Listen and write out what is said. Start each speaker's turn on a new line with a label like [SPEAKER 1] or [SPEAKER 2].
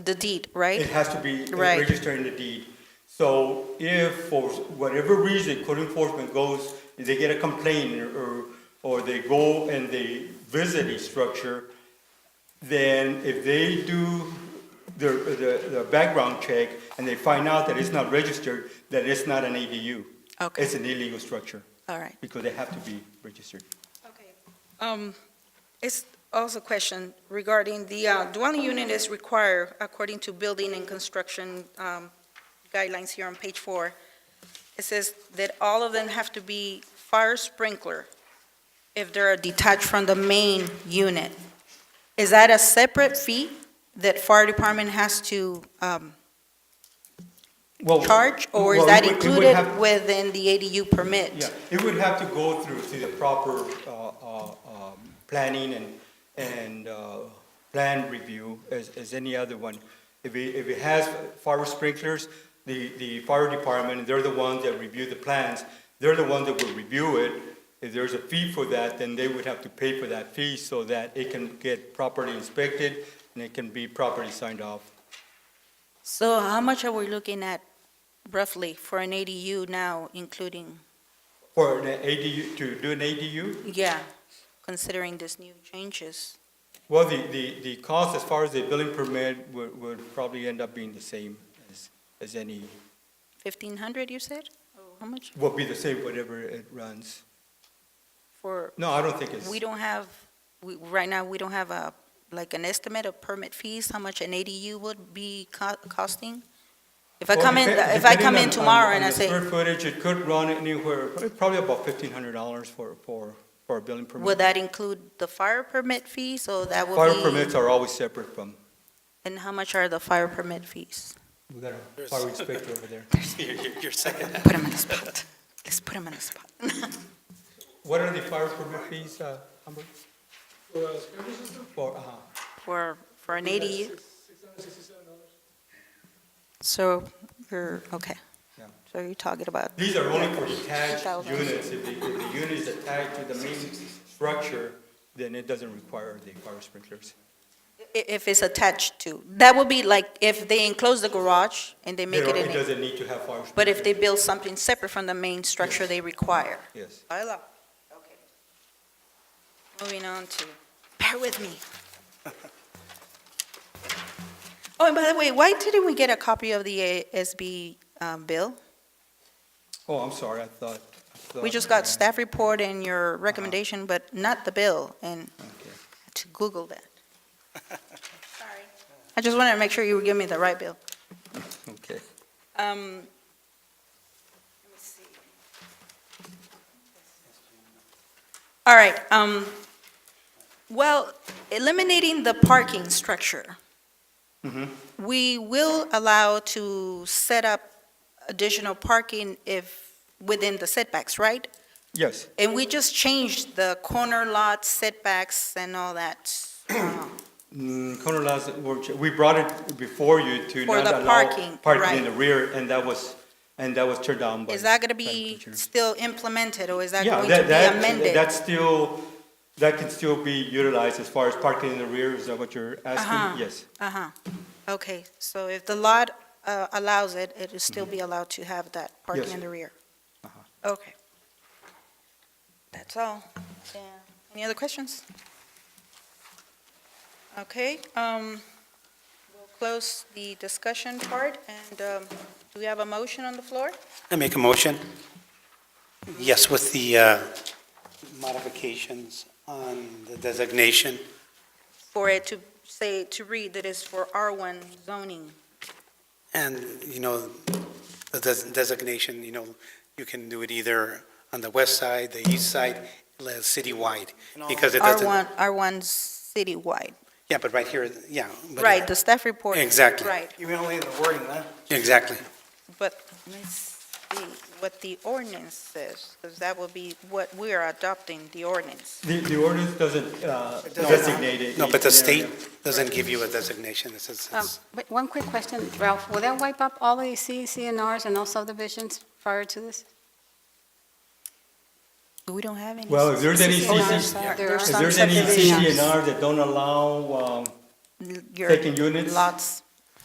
[SPEAKER 1] the deed, right?
[SPEAKER 2] It has to be
[SPEAKER 1] Right.
[SPEAKER 2] registered in the deed. So if for whatever reason code enforcement goes, and they get a complaint or, or they go and they visit a structure, then if they do their, the, the background check and they find out that it's not registered, that it's not an ADU.
[SPEAKER 1] Okay.
[SPEAKER 2] It's an illegal structure
[SPEAKER 1] All right.
[SPEAKER 2] because they have to be registered.
[SPEAKER 1] Okay.
[SPEAKER 3] Um, It's also a question regarding the uh, dwelling unit is required according to building and construction um, guidelines here on page four. It says that all of them have to be fire sprinkler if they're detached from the main unit. Is that a separate fee that fire department has to um,
[SPEAKER 2] Well,
[SPEAKER 3] charge? Or is
[SPEAKER 2] well,
[SPEAKER 3] that
[SPEAKER 2] it would- it would
[SPEAKER 3] included
[SPEAKER 2] have-
[SPEAKER 3] within the ADU permit?
[SPEAKER 2] Yeah, it would have to go through, through the proper uh, uh, um, planning and, and uh, plan review as, as any other one. If it, if it has fire sprinklers, the, the fire department, they're the ones that review the plans, they're the ones that will review it. If there's a fee for that, then they would have to pay for that fee so that it can get properly inspected and it can be properly signed off.
[SPEAKER 3] So how much are we looking at roughly for an ADU now, including
[SPEAKER 2] For an ADU, to do an ADU,
[SPEAKER 3] Yeah, considering these new changes.
[SPEAKER 2] Well, the, the, the cost as far as the building permit would, would probably end up being the same as, as any,
[SPEAKER 3] 1,500, you said? How much
[SPEAKER 2] will be the same whatever it runs.
[SPEAKER 3] for,
[SPEAKER 2] No, I don't think it's,
[SPEAKER 3] we don't have, we, right now, we don't have a, like, an estimate of permit fees, how much an ADU would be co- costing? If I
[SPEAKER 2] Well,
[SPEAKER 3] come in,
[SPEAKER 2] depe-
[SPEAKER 3] if I
[SPEAKER 2] depending
[SPEAKER 3] come
[SPEAKER 2] on-
[SPEAKER 3] in
[SPEAKER 2] on-
[SPEAKER 3] tomorrow and
[SPEAKER 2] on
[SPEAKER 3] I
[SPEAKER 2] the
[SPEAKER 3] say,
[SPEAKER 2] Square footage, it could run anywhere, probably about fifteen hundred dollars for, for, for a building
[SPEAKER 3] would
[SPEAKER 2] permit.
[SPEAKER 3] that include the fire permit fee, so that would
[SPEAKER 2] Fire
[SPEAKER 3] be?
[SPEAKER 2] permits are always separate from,
[SPEAKER 3] And how much are the fire permit fees?
[SPEAKER 2] we got a fire inspector over there.
[SPEAKER 4] Your second.
[SPEAKER 3] Put him on the spot. Let's put him on the spot.
[SPEAKER 2] What are the fire permit fees, uh, Humbert? For, uh-huh.
[SPEAKER 3] For, for an ADU? So, you're, okay.
[SPEAKER 2] Yeah.
[SPEAKER 3] So you're talking about
[SPEAKER 2] These are only for detached
[SPEAKER 3] 2,000.
[SPEAKER 2] units. If the, if the unit is attached to the main structure, then it doesn't require the fire sprinklers.
[SPEAKER 3] I- If it's attached to, that would be like if they enclose the garage and they
[SPEAKER 2] They
[SPEAKER 3] make it
[SPEAKER 2] don't-
[SPEAKER 3] an,
[SPEAKER 2] doesn't need to have fire sprinklers.
[SPEAKER 3] but if they build something separate from the main structure they require.
[SPEAKER 2] Yes.
[SPEAKER 3] By law. Okay. Moving on to, bear with me. Oh, and by the way, why didn't we get a copy of the ASB um, bill?
[SPEAKER 2] Oh, I'm sorry, I thought. I
[SPEAKER 3] We
[SPEAKER 2] thought-
[SPEAKER 3] just got staff report and your recommendation, but not the bill, and
[SPEAKER 2] Okay.
[SPEAKER 3] to Google that. Sorry. I just wanted to make sure you were giving me the right bill.
[SPEAKER 2] Okay.
[SPEAKER 3] Um, let me see. All right, um, well, eliminating the parking structure. We will allow to set up additional parking if, within the setbacks, right?
[SPEAKER 2] Yes,
[SPEAKER 3] And we just changed the corner lot setbacks and all that uh,
[SPEAKER 2] Mm, corner lots, were ch- we brought it before you to
[SPEAKER 3] For
[SPEAKER 2] not
[SPEAKER 3] the
[SPEAKER 2] allow
[SPEAKER 3] parking,
[SPEAKER 2] parking in
[SPEAKER 3] right.
[SPEAKER 2] the rear, and that was, and that was turned down by.
[SPEAKER 3] Is that going to
[SPEAKER 2] by the
[SPEAKER 3] be
[SPEAKER 2] teacher.
[SPEAKER 3] still implemented, or is that
[SPEAKER 2] Yeah,
[SPEAKER 3] going to
[SPEAKER 2] that,
[SPEAKER 3] be
[SPEAKER 2] that,
[SPEAKER 3] amended?
[SPEAKER 2] that's still, that can still be utilized as far as parking in the rear, is that what you're
[SPEAKER 3] Uh-huh.
[SPEAKER 2] asking? Yes.
[SPEAKER 3] Uh-huh, okay, so if the lot uh, allows it, it'll still be allowed to have that parking
[SPEAKER 2] Mm-hmm. Yes.
[SPEAKER 3] in the rear?
[SPEAKER 2] Uh-huh.
[SPEAKER 3] Okay. That's all. Yeah. Any other questions? Okay, um, we'll close the discussion part, and um, do we have a motion on the floor?
[SPEAKER 4] I make a motion? Yes, with the uh, modifications on the designation.
[SPEAKER 3] For it to say, to read that it's for R1 zoning.
[SPEAKER 4] And, you know, the des- designation, you know, you can do it either on the west side, the east side, le- citywide, because it doesn't.
[SPEAKER 3] R1, R1 citywide,
[SPEAKER 4] Yeah, but right here, yeah. but-
[SPEAKER 3] right, the staff report.
[SPEAKER 4] Exactly.
[SPEAKER 3] Right,
[SPEAKER 5] You only the wording, huh?
[SPEAKER 4] Exactly.
[SPEAKER 3] but let's see what the ordinance says, because that will be what we are adopting, the ordinance.
[SPEAKER 2] The, the ordinance doesn't uh,
[SPEAKER 5] doesn't.
[SPEAKER 2] designate it.
[SPEAKER 4] No, but the
[SPEAKER 2] each
[SPEAKER 4] state
[SPEAKER 2] area.
[SPEAKER 4] doesn't give you a designation. It's, it's-
[SPEAKER 6] Um,
[SPEAKER 4] it's-
[SPEAKER 6] But one quick question, Ralph, will that wipe up all the C, CNRs and all subdivisions prior to this?
[SPEAKER 3] We don't have any.
[SPEAKER 2] Well, if there's any
[SPEAKER 6] Oh,
[SPEAKER 2] CC if
[SPEAKER 6] I'm sorry,
[SPEAKER 3] Yeah.
[SPEAKER 6] there
[SPEAKER 3] There's
[SPEAKER 6] are
[SPEAKER 3] some
[SPEAKER 2] there's any
[SPEAKER 6] subdivisions.
[SPEAKER 2] CCNR that don't allow um,
[SPEAKER 3] Your
[SPEAKER 2] taking units,
[SPEAKER 3] lots,